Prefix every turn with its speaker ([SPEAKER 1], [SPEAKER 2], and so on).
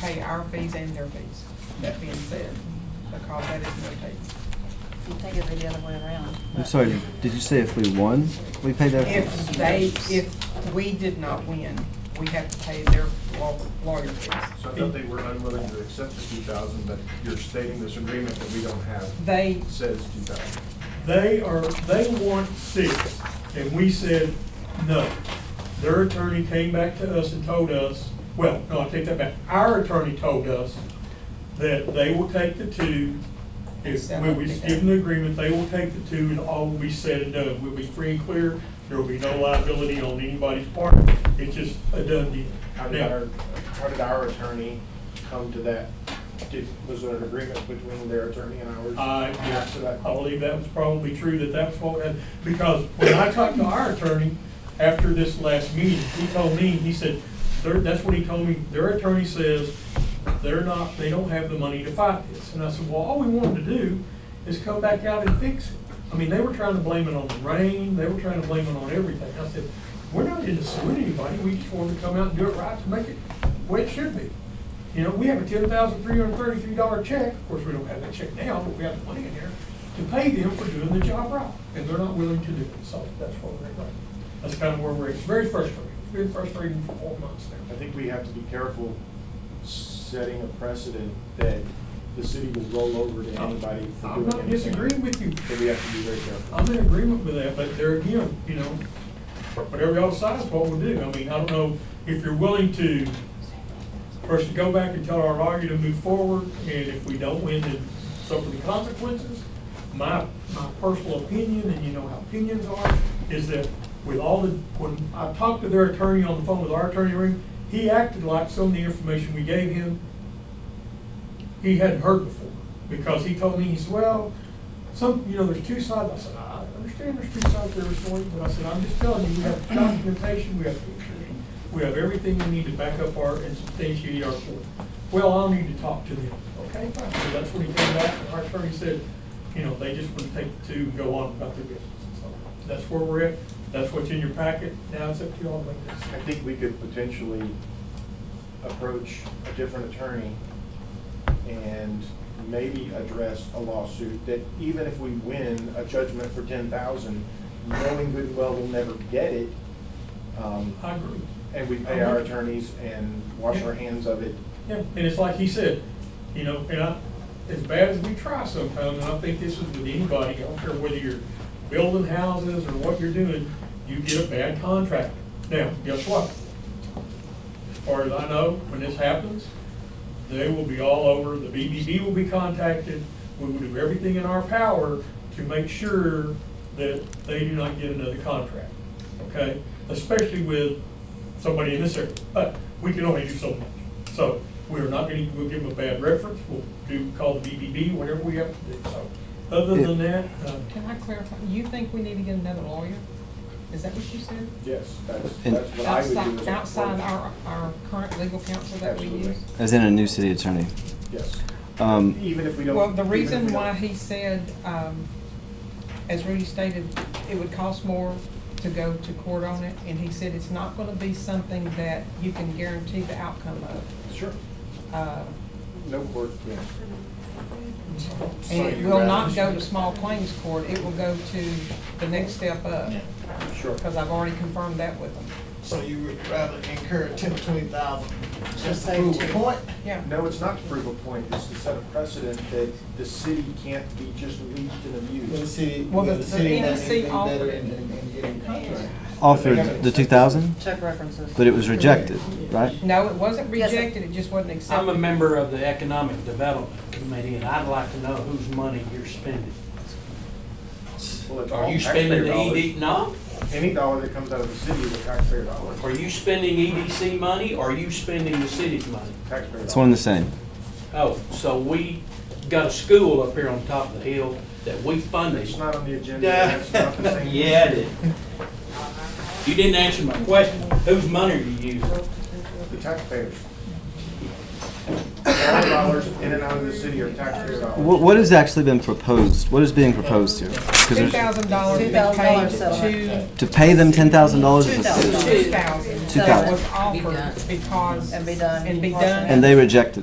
[SPEAKER 1] pay our fees and their fees. That being said, because that is Medicaid.
[SPEAKER 2] You think it'd be the other way around.
[SPEAKER 3] I'm
[SPEAKER 2] but-
[SPEAKER 3] sorry, did you say if we won, we pay their
[SPEAKER 1] If
[SPEAKER 3] fees?
[SPEAKER 1] they, if we did not win, we have to pay their law- lawyer fees.
[SPEAKER 4] So I thought they were unwilling to accept the two thousand, but you're stating this agreement that we don't have
[SPEAKER 1] They,
[SPEAKER 4] says two thousand.
[SPEAKER 5] They are, they want six, and we said, no. Their attorney came back to us and told us, well, no, I take that back. Our attorney told us that they will take the two, if, when we give them the agreement, they will take the two, and all will be said and done. We'll be free and clear, there will be no liability on anybody's part, it's just a done deal.
[SPEAKER 4] How did our, how did our attorney come to that? Did, was there an agreement between their attorney and ours?
[SPEAKER 5] I,
[SPEAKER 4] After that?
[SPEAKER 5] Uh, I believe that was probably true, that that's what, had- because when I talked to our attorney after this last meeting, he told me, he said, their, that's what he told me, their attorney says, they're not, they don't have the money to fight this. And I said, well, all we wanted to do is come back out and fix it. I mean, they were trying to blame it on the rain, they were trying to blame it on everything. I said, we're not in to sue anybody, we just wanted to come out and do it right to make it the way it should be. You know, we have a ten thousand three hundred thirty-three dollar check, of course, we don't have that check now, but we have the money in there to pay them for doing the job right, and they're not willing to do it, so that's what we're at. That's kind of where we're, at. it's very frustrating, it's been frustrating for four months
[SPEAKER 4] I
[SPEAKER 5] now.
[SPEAKER 4] think we have to be careful setting a precedent that the city will roll over to anybody for
[SPEAKER 5] Oh. I'm
[SPEAKER 4] doing anything.
[SPEAKER 5] not disagreeing with you,
[SPEAKER 4] So we have to be very careful.
[SPEAKER 5] I'm in agreement with that, but there again, you know, whatever y'all decide is what we'll do, I mean, I don't know if you're willing to, first to go back and tell our lawyer to move forward, and if we don't win, then suffer the consequences. My, my personal opinion, and you know how opinions are, is that with all the, when I talked to their attorney on the phone with our attorney ring, he acted like some of the information we gave him, he hadn't heard before, because he told me, he said, well, some, you know, there's two sides, I said, I understand there's two sides to every story, but I said, I'm just telling you, we have documentation, we have pictures, we have everything we need to back up our, and substantiate our court. Well, I'll need to talk to them, okay, fine, so that's when he came back, and our attorney said, you know, they just wouldn't take the two and go on about their business, so, that's where we're at, that's what's in your packet, now it's up to y'all to make this.
[SPEAKER 4] I think we could potentially approach a different attorney and maybe address a lawsuit that even if we win a judgment for ten thousand, knowing good and well we'll never get it, um,
[SPEAKER 5] I agree.
[SPEAKER 4] and we pay our attorneys and wash our hands of it.
[SPEAKER 5] Yeah, and it's like he said, you know, and I, as bad as we try sometimes, and I think this is with anybody, I don't care whether you're building houses or what you're doing, you get a bad contract. Now, guess what? As far as I know, when this happens, they will be all over, the BBB will be contacted, we will do everything in our power to make sure that they do not get another contract, okay? Especially with somebody in this area, but we can only do so much. So we're not gonna, we'll give them a bad reference, we'll do, call the BBB, whatever we have to do, so. Other than that, uh,
[SPEAKER 1] can I clarify, you think we need to get another lawyer? Is that what you said?
[SPEAKER 4] Yes, that's,
[SPEAKER 3] And-
[SPEAKER 4] that's what I would do.
[SPEAKER 1] Outside,
[SPEAKER 4] as a-
[SPEAKER 1] outside our, our current legal counsel that we
[SPEAKER 4] Absolutely.
[SPEAKER 1] use?
[SPEAKER 3] As in a new city attorney.
[SPEAKER 4] Yes,
[SPEAKER 3] Um,
[SPEAKER 4] even if we don't.
[SPEAKER 1] Well, the
[SPEAKER 4] even if
[SPEAKER 1] reason
[SPEAKER 4] we
[SPEAKER 1] why
[SPEAKER 4] don't-
[SPEAKER 1] he said, um, as Rudy stated, it would cost more to go to court on it, and he said it's not gonna be something that you can guarantee the outcome of.
[SPEAKER 4] Sure,
[SPEAKER 1] Uh,
[SPEAKER 4] no court, yeah.
[SPEAKER 1] And it will not go to small claims court, it will go to the next step up,
[SPEAKER 4] Sure.
[SPEAKER 1] because I've already confirmed that with him.
[SPEAKER 6] So you would rather incur ten or twenty thousand?
[SPEAKER 2] Just say two.
[SPEAKER 6] Point?
[SPEAKER 1] Yeah.
[SPEAKER 4] No, it's not to prove a point, it's to set a precedent that the city can't be just leased and
[SPEAKER 6] Will the
[SPEAKER 4] abused.
[SPEAKER 6] city,
[SPEAKER 1] Well,
[SPEAKER 6] will
[SPEAKER 1] the-
[SPEAKER 6] the city
[SPEAKER 1] the
[SPEAKER 6] not
[SPEAKER 1] NEC
[SPEAKER 6] anything better
[SPEAKER 1] offered
[SPEAKER 6] in,
[SPEAKER 1] it.
[SPEAKER 6] in in getting contract?
[SPEAKER 3] offered the two thousand,
[SPEAKER 2] Check references.
[SPEAKER 3] but it was rejected, right?
[SPEAKER 1] No, it wasn't
[SPEAKER 2] Yes, sir.
[SPEAKER 1] rejected, it just wasn't accepted.
[SPEAKER 7] I'm a member of the Economic Development Committee, and I'd like to know whose money you're spending.
[SPEAKER 4] Well, it's
[SPEAKER 7] Are
[SPEAKER 4] all
[SPEAKER 7] you spending the E
[SPEAKER 4] taxpayer
[SPEAKER 7] ED, no?
[SPEAKER 4] Any dollar that comes out of the city is a taxpayer dollar.
[SPEAKER 7] Are you spending EDC money, or are you spending the city's money?
[SPEAKER 4] Taxpayer
[SPEAKER 3] It's one
[SPEAKER 4] dollar.
[SPEAKER 3] and the same.
[SPEAKER 7] Oh, so we got a school up here on top of the hill that we funded.
[SPEAKER 4] It's not on the agenda, that's not the same.
[SPEAKER 7] Yeah, it is. You didn't answer my question. Whose money are you using?
[SPEAKER 4] The taxpayers. It's all about dollars in and out of the city are taxpayer dollars.
[SPEAKER 3] What, what has actually been proposed? What is being proposed here? 'Cause
[SPEAKER 1] Two
[SPEAKER 3] there's-
[SPEAKER 1] thousand dollars been paid
[SPEAKER 2] $2,000
[SPEAKER 1] to,
[SPEAKER 2] settlement.
[SPEAKER 3] To pay them ten thousand dollars is
[SPEAKER 1] two
[SPEAKER 2] $2,000.
[SPEAKER 1] thousand
[SPEAKER 3] $2,000.
[SPEAKER 1] was offered because.
[SPEAKER 2] And be done.
[SPEAKER 1] And be
[SPEAKER 2] Partial.
[SPEAKER 1] done.
[SPEAKER 3] and they rejected it.